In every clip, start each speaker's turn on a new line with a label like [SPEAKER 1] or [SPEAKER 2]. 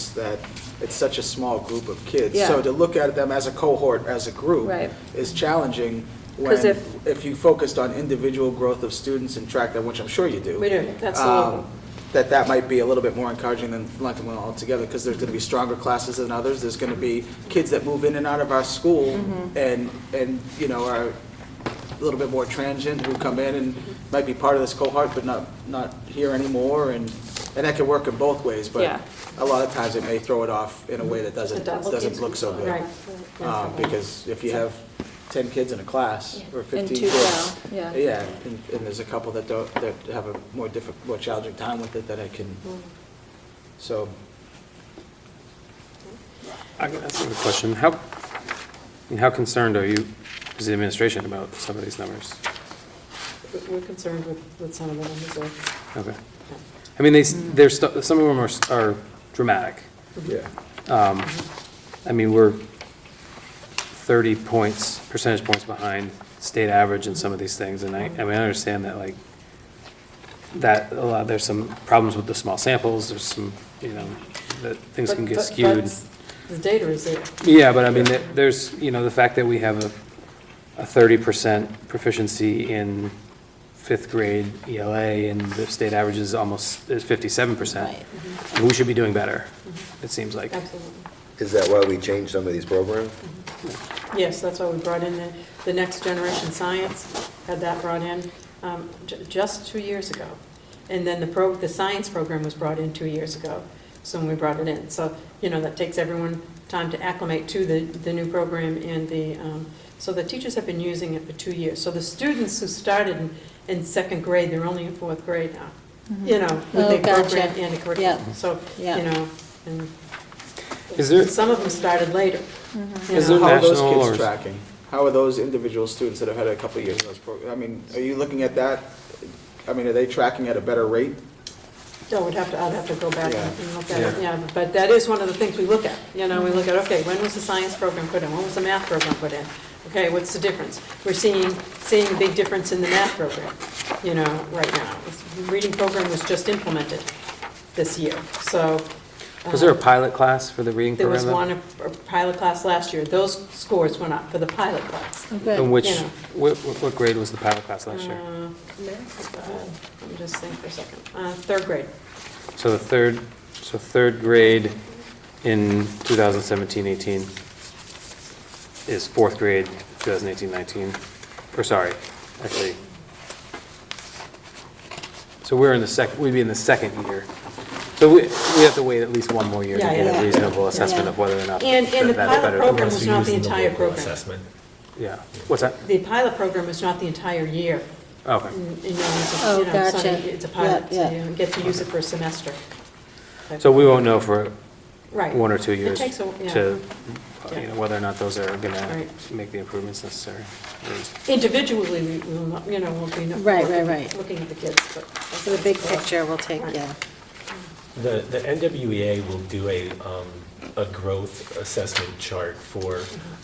[SPEAKER 1] is that it's such a small group of kids.
[SPEAKER 2] Yeah.
[SPEAKER 1] So to look at them as a cohort, as a group,
[SPEAKER 2] Right.
[SPEAKER 1] is challenging.
[SPEAKER 2] 'Cause
[SPEAKER 1] When,
[SPEAKER 2] if-
[SPEAKER 1] if you focused on individual growth of students and track them, which I'm sure you do.
[SPEAKER 2] We do, absolutely.
[SPEAKER 1] um, That that might be a little bit more encouraging than lumping them all together, because there's going to be stronger classes than others. There's going to be kids that move in and out of our school and, and, you know, are a little bit more transient, who come in and might be part of this cohort, but not, not here anymore, and, and that could work in both ways,
[SPEAKER 2] Yeah.
[SPEAKER 1] but a lot of times it may throw it off in a way that doesn't, doesn't look so good.
[SPEAKER 3] Right.
[SPEAKER 1] Um, Because if you have ten kids in a class, or
[SPEAKER 2] And
[SPEAKER 1] fifteen
[SPEAKER 2] two
[SPEAKER 1] kids.
[SPEAKER 2] fail, yeah.
[SPEAKER 1] Yeah, and, and there's a couple that don't, that have a more difficult, more challenging time with it that I can,
[SPEAKER 2] Mm.
[SPEAKER 1] so,
[SPEAKER 4] I'm gonna ask you a question. How, and how concerned are you, as the administration, about some of these numbers?
[SPEAKER 3] We're concerned with, with some of the numbers there.
[SPEAKER 4] Okay. I mean, they, s- they're, stu- some of them are, s- are dramatic.
[SPEAKER 2] Mm-hmm.
[SPEAKER 1] yeah.
[SPEAKER 4] Um, I mean, we're 30 points, percentage points behind state average in some of these things, and I, I mean, I understand that, like, that, a lot, there's some problems with the small samples, there's some, you know, that things can
[SPEAKER 3] But-
[SPEAKER 4] get
[SPEAKER 3] but-
[SPEAKER 4] skewed.
[SPEAKER 3] but The data is there.
[SPEAKER 4] Yeah, but I mean, there- there's, you know, the fact that we have a, a thirty percent proficiency in fifth grade ELA and the state average is almost, is fifty-seven percent. We should be doing better, it seems like.
[SPEAKER 3] Absolutely.
[SPEAKER 5] Is that why we changed some of these programs?
[SPEAKER 3] Yes, that's why we brought in the, the Next Generation Science, had that brought in um, ju- just two years ago. And then the pro, the science program was brought in two years ago, so when we brought it in. So, you know, that takes everyone time to acclimate to the, the new program and the, um, so the teachers have been using it for two years. So the students who started in- in second grade, they're only in fourth grade now, Mm-hmm. you know, with
[SPEAKER 2] Oh,
[SPEAKER 3] the
[SPEAKER 2] gotcha.
[SPEAKER 3] program and the curriculum.
[SPEAKER 2] Yeah.
[SPEAKER 3] So,
[SPEAKER 2] Yeah.
[SPEAKER 3] you know, and
[SPEAKER 4] Is there-
[SPEAKER 3] and some of them started later.
[SPEAKER 2] Mm-hmm.
[SPEAKER 3] you
[SPEAKER 4] Is
[SPEAKER 3] know.
[SPEAKER 4] there
[SPEAKER 1] How are those
[SPEAKER 4] national
[SPEAKER 1] kids
[SPEAKER 4] or-
[SPEAKER 1] tracking? How are those individual students that have had a couple of years in those programs? I mean, are you looking at that? I mean, are they tracking at a better rate?
[SPEAKER 3] No, Oh, we'd have to, I'd have to go back
[SPEAKER 1] Yeah.
[SPEAKER 3] and look at it, yeah, but that is one of the things we look at, you know, we look at, okay, when was the science program put in, when was the math program put in? Okay, what's the difference? We're seeing, seeing a big difference in the math program, you know, right now. The Reading program was just implemented this year, so.
[SPEAKER 4] Was there a
[SPEAKER 3] um,
[SPEAKER 4] pilot class for the reading
[SPEAKER 3] There
[SPEAKER 4] program?
[SPEAKER 3] was one, a a pilot class last year, those scores went up for the pilot class.
[SPEAKER 4] then?
[SPEAKER 2] Oh, Good.
[SPEAKER 4] And which,
[SPEAKER 3] Yeah.
[SPEAKER 4] what, what what grade was the pilot class last year?
[SPEAKER 3] Uh, Let me just think for a second, uh, third grade,
[SPEAKER 4] So the third, so third grade in 2017-18 is fourth grade 2018-19, or sorry, actually. So we're in the sec, we'd be in the second year. So we, we have to wait at least one more year to
[SPEAKER 3] Yeah,
[SPEAKER 4] get
[SPEAKER 3] yeah.
[SPEAKER 4] a reasonable assessment of whether or not
[SPEAKER 3] And-
[SPEAKER 4] that's
[SPEAKER 3] and the pilot
[SPEAKER 4] better.
[SPEAKER 3] program
[SPEAKER 6] Unless
[SPEAKER 3] was
[SPEAKER 6] you're
[SPEAKER 3] not Mm. the
[SPEAKER 6] using
[SPEAKER 3] entire
[SPEAKER 6] local
[SPEAKER 3] program.
[SPEAKER 6] Assessment.
[SPEAKER 4] Yeah, what's that?
[SPEAKER 3] the pilot program was not the entire year. Mm,
[SPEAKER 4] Okay.
[SPEAKER 3] You know, it's a-
[SPEAKER 2] Oh,
[SPEAKER 3] you know, it's not
[SPEAKER 2] gotcha.
[SPEAKER 3] a- it's a pilot,
[SPEAKER 2] Yeah,
[SPEAKER 3] so you
[SPEAKER 2] yeah.
[SPEAKER 3] don't get to use it for a semester.
[SPEAKER 4] So we won't know for
[SPEAKER 3] Right.
[SPEAKER 4] one or two years
[SPEAKER 3] It takes a, yeah.
[SPEAKER 4] to, uh, you know, whether or not those are gonna
[SPEAKER 3] Right.
[SPEAKER 4] make the improvements necessary.
[SPEAKER 3] Individually, we we will, not- you know, we'll be. not-
[SPEAKER 2] Right, right,
[SPEAKER 3] looking-
[SPEAKER 2] right.
[SPEAKER 3] Looking at the kids, but.
[SPEAKER 2] So the big picture will take, yeah.
[SPEAKER 6] The, the NWEA will do a, um, a growth assessment chart for,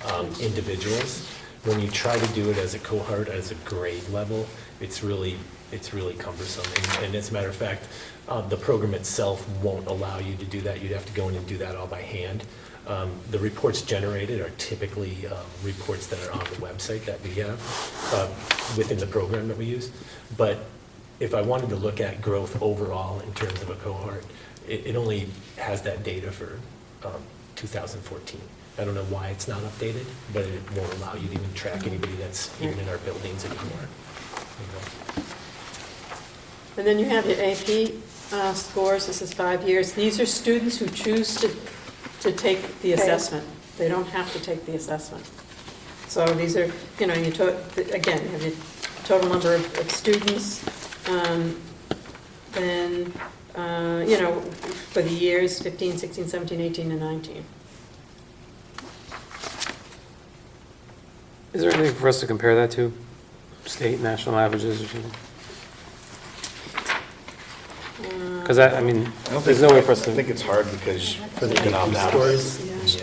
[SPEAKER 6] um,
[SPEAKER 3] Mm-hmm.
[SPEAKER 6] individuals. When you try to do it as a cohort, as a grade level, it's really, it's really cumbersome. And- And as a matter of fact, uh, the program itself won't allow you to do that. You'd have to go in and do that all by hand. Um, The reports generated are typically um, reports that are on the website that we have, uh, within the program that we use. But if I wanted to look at growth overall in terms of a cohort, it, it only has that data for um, 2014. I don't know why it's not updated, but it won't allow you to even track anybody that's even in our buildings anymore. you know.
[SPEAKER 3] And then you have your AP uh, scores, this is five years. These are students who choose to, to take the
[SPEAKER 2] Right.
[SPEAKER 3] assessment. They don't have to take the assessment. So these are, you know, you, to- again, you have your total number of of students, um, then, uh, you know, for the years 15, 16, 17, 18, and 19.
[SPEAKER 4] Is there anything for us to compare that to? State, national averages or something? Because I, I mean, there's no way for us to.
[SPEAKER 7] I think it's hard because
[SPEAKER 6] For the
[SPEAKER 7] you can opt
[SPEAKER 6] AP
[SPEAKER 7] out.
[SPEAKER 6] scores,
[SPEAKER 7] Yeah.
[SPEAKER 6] I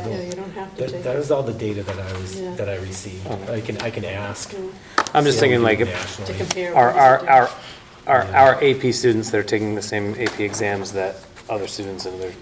[SPEAKER 3] Yeah,
[SPEAKER 6] don't-
[SPEAKER 3] you don't have to
[SPEAKER 6] that,
[SPEAKER 3] take.
[SPEAKER 6] that
[SPEAKER 3] it.
[SPEAKER 6] was all the data that I was,
[SPEAKER 3] Yeah.
[SPEAKER 6] that I received.
[SPEAKER 4] Okay.
[SPEAKER 6] I can, I can ask.
[SPEAKER 3] Uh,
[SPEAKER 4] I'm just
[SPEAKER 6] see
[SPEAKER 4] thinking
[SPEAKER 6] how we do
[SPEAKER 4] like, if
[SPEAKER 3] To
[SPEAKER 6] nationally.
[SPEAKER 3] compare.
[SPEAKER 4] our,
[SPEAKER 3] what is
[SPEAKER 4] our,
[SPEAKER 3] it
[SPEAKER 4] our, our our AP students that are taking the same AP exams that other students in other